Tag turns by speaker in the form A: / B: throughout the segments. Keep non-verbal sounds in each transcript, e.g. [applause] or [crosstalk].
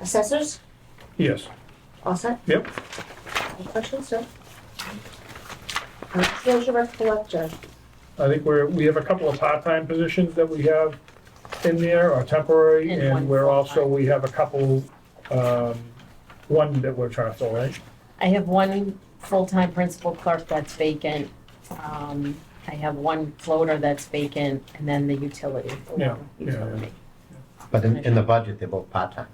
A: Assessors,
B: Yes.
A: all set?
B: Yep.
A: Any questions, sir? Uh, Skills your collector,
B: I think we're, we have a couple of part-time positions that we have in there, or temporary,
C: And
B: and
C: one
B: we're also,
C: full-time.
B: we have a couple, um, one that we're trying to fill, right?
C: I have one full-time principal clerk that's vacant. Um, I have one floater that's vacant, and then the utility. the
B: Yeah,
C: water
B: yeah, yeah.
C: utility.
D: But in, in the budget, they're both part-time.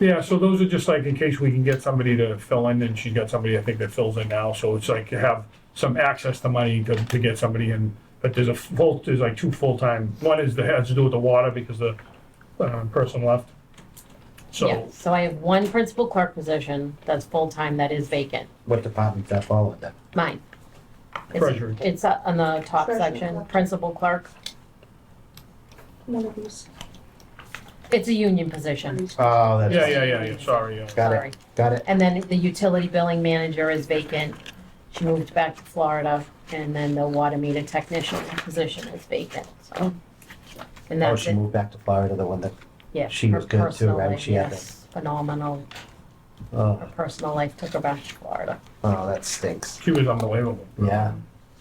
B: Yeah, so those are just like in case we can get somebody to fill in, and she's got somebody, I think, that fills in now, so it's like you have some access to money to, to get somebody in. But there's a full, there's like two full-time, one is that has to do with the water because the, um, person left.
C: Yeah,
B: So,
C: So I have one principal clerk position that's full-time that is vacant,
D: What department does that fall under?
C: mine. It's-
B: Treasury.
C: It's uh, on the top
A: Treasury
C: section,
A: clerk.
C: principal clerk.
A: one of these.
C: It's a union position,
D: Oh, that's.
B: yeah, yeah, yeah, yeah, sorry, yeah.
D: Got
C: sorry.
D: it, got it.
C: And then the utility billing manager is vacant. She moved back to Florida, and then the water meter technician position is vacant, so. And
D: Oh,
C: that's
D: she
C: it,
D: moved back to Florida, the one that,
C: yeah.
D: she
C: her
D: was good too,
C: personal
D: right?
C: life,
D: She had
C: yes, Phenomenal, her
D: oh,
C: personal life took her back to Florida.
D: oh, that stinks.
B: She was unbelievable.
D: Yeah,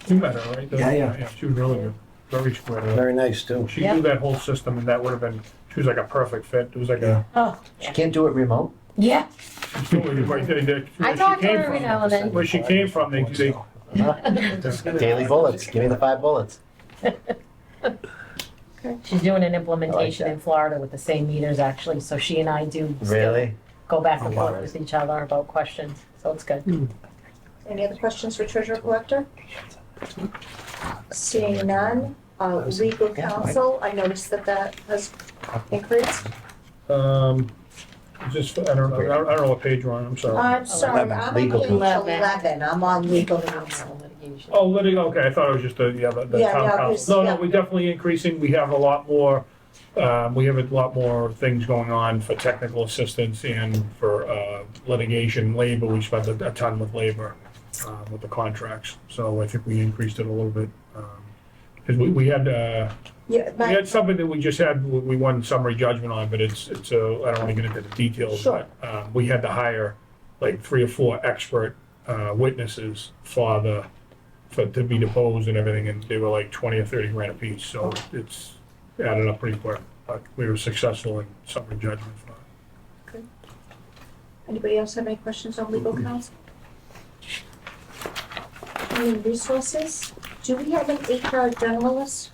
B: You met her, right? The-
D: Yeah, yeah.
B: She was really good, very square.
D: very nice too.
B: She
C: Yeah.
B: knew that whole system and that would have been, she was like a perfect fit. It was like a,
C: Oh,
D: She can't do it remote?
C: yeah,
B: she's totally right there, there,
C: I
B: where she
C: talk to
B: came
C: her every
B: from.
C: now and Oh, then.
B: Where she came from, they, they.
E: [laughs]
D: Daily bullets, give me the five bullets.
C: She's doing an implementation
D: that.
C: in Florida with the same meters, actually, so she and I do still
D: Really?
C: go back and
D: Oh, wow.
C: forth with each other about questions, so it's good.
A: Any other questions for treasurer collector? Seeing none, uh, legal counsel, I noticed that that has increased.
B: Um, just, I don't, know. I don't I don't know what page we're on, I'm
C: Uh,
B: sorry.
A: I'm sorry,
D: Eleven,
A: I'm on
D: legal
A: page
C: counsel.
A: eleven, I'm on legal counsel.
C: Litigation.
B: Oh, litig, okay, I thought it was just the, yeah, the the
A: Yeah,
B: town
A: yeah,
B: council. No,
A: yeah.
B: no, we're definitely increasing. We have a lot more, um, we have a lot more things going on for technical assistance and for, uh, litigation, labor. We spent a a ton with labor, um, with the contracts. So I think we increased it a little bit. Because we, we had, uh,
A: Yeah,
B: we
A: my,
B: had something that we just had, we- we won summary judgment on, but it's, it's, uh, I don't want to get into the details.
A: Sure.
B: but, Um, we had to hire like three or four expert, uh, witnesses for the, for, to be deposed and everything, and they were like twenty or thirty grand apiece, so it's added up pretty quick. But we were successful in summary judgment for it.
A: anybody else have any questions on legal counsel? Human resources, do we have an HR generalist?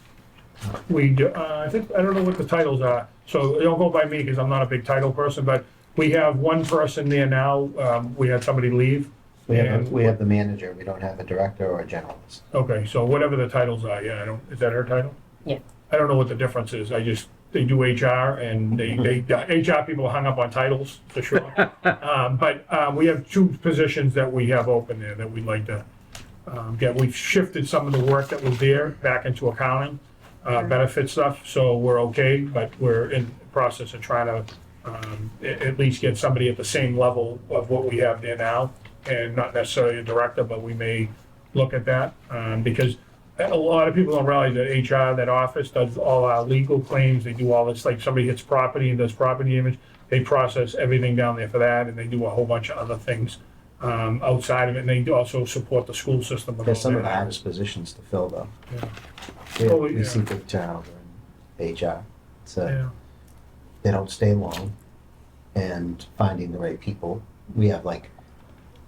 B: We, do- uh, I think, I don't know what the titles are, so don't go by me, because I'm not a big title person, but we have one person there now, um, we had somebody leave.
D: We have,
B: and-
D: a- we have the manager, we don't have a director or a generalist.
B: Okay, so whatever the titles are, yeah, I don't, is that her title?
C: Yeah.
B: I don't know what the difference is, I just, they do HR and they, they, HR people are hung up on titles, for sure. Um, but, uh, we have two positions that we have open there that we'd like to, um, get, we've shifted some of the work that was there back into accounting, uh, benefit stuff, so we're okay, but we're in the process of trying to, um, at, at least get somebody at the same level of what we have there now, and not necessarily a director, but we may look at that, um, because a lot of people don't realize that HR, that office does all our legal claims, they do all this, like somebody hits property and does property image, they process everything down there for that, and they do a whole bunch of other things, um, outside of it, and they do also support the school system. with
D: There's
B: all
D: some of the
B: that.
D: hardest positions to fill though.
B: Yeah.
D: We-
B: Oh, yeah.
D: We see big turnover in HR, so
B: Yeah.
D: they don't stay long and finding the right people. We have like,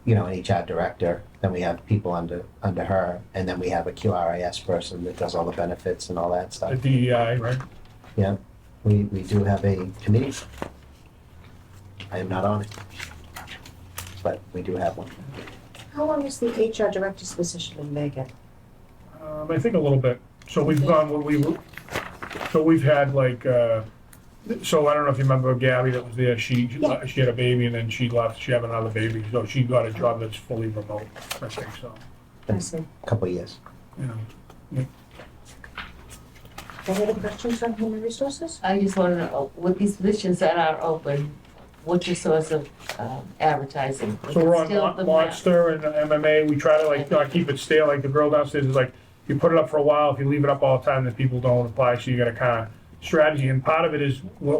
D: you know, an HR director, then we have people under, under her, and then we have a QRIS person that does all the benefits and all that
B: the
D: stuff.
B: DEI, right?
D: Yeah, we, we do have a committee. I am not on it. But we do have one.
A: How long is the HR director's position in Megan?
B: Um, I think a little bit. So we've gone, what we, so we've had like, uh, so I don't know if you remember Gabby that was there, she,
A: Yeah.
B: she had a baby and then she left, she had another baby, so she got a job that's fully remote, I think so.
D: Um,
A: I see.
D: Couple of years.
B: you know.
A: Any other questions on human resources?
E: I just want to know, with these positions that are open, what's your source of um, advertising?
B: So we're on
E: Still
B: Mon-
E: the
B: Monster and MMA, we try to like not keep it stale, like the girl downstairs is like, you put it up for a while, if you leave it up all the time, then people don't apply, so you gotta kinda strategy, and part of it is, what,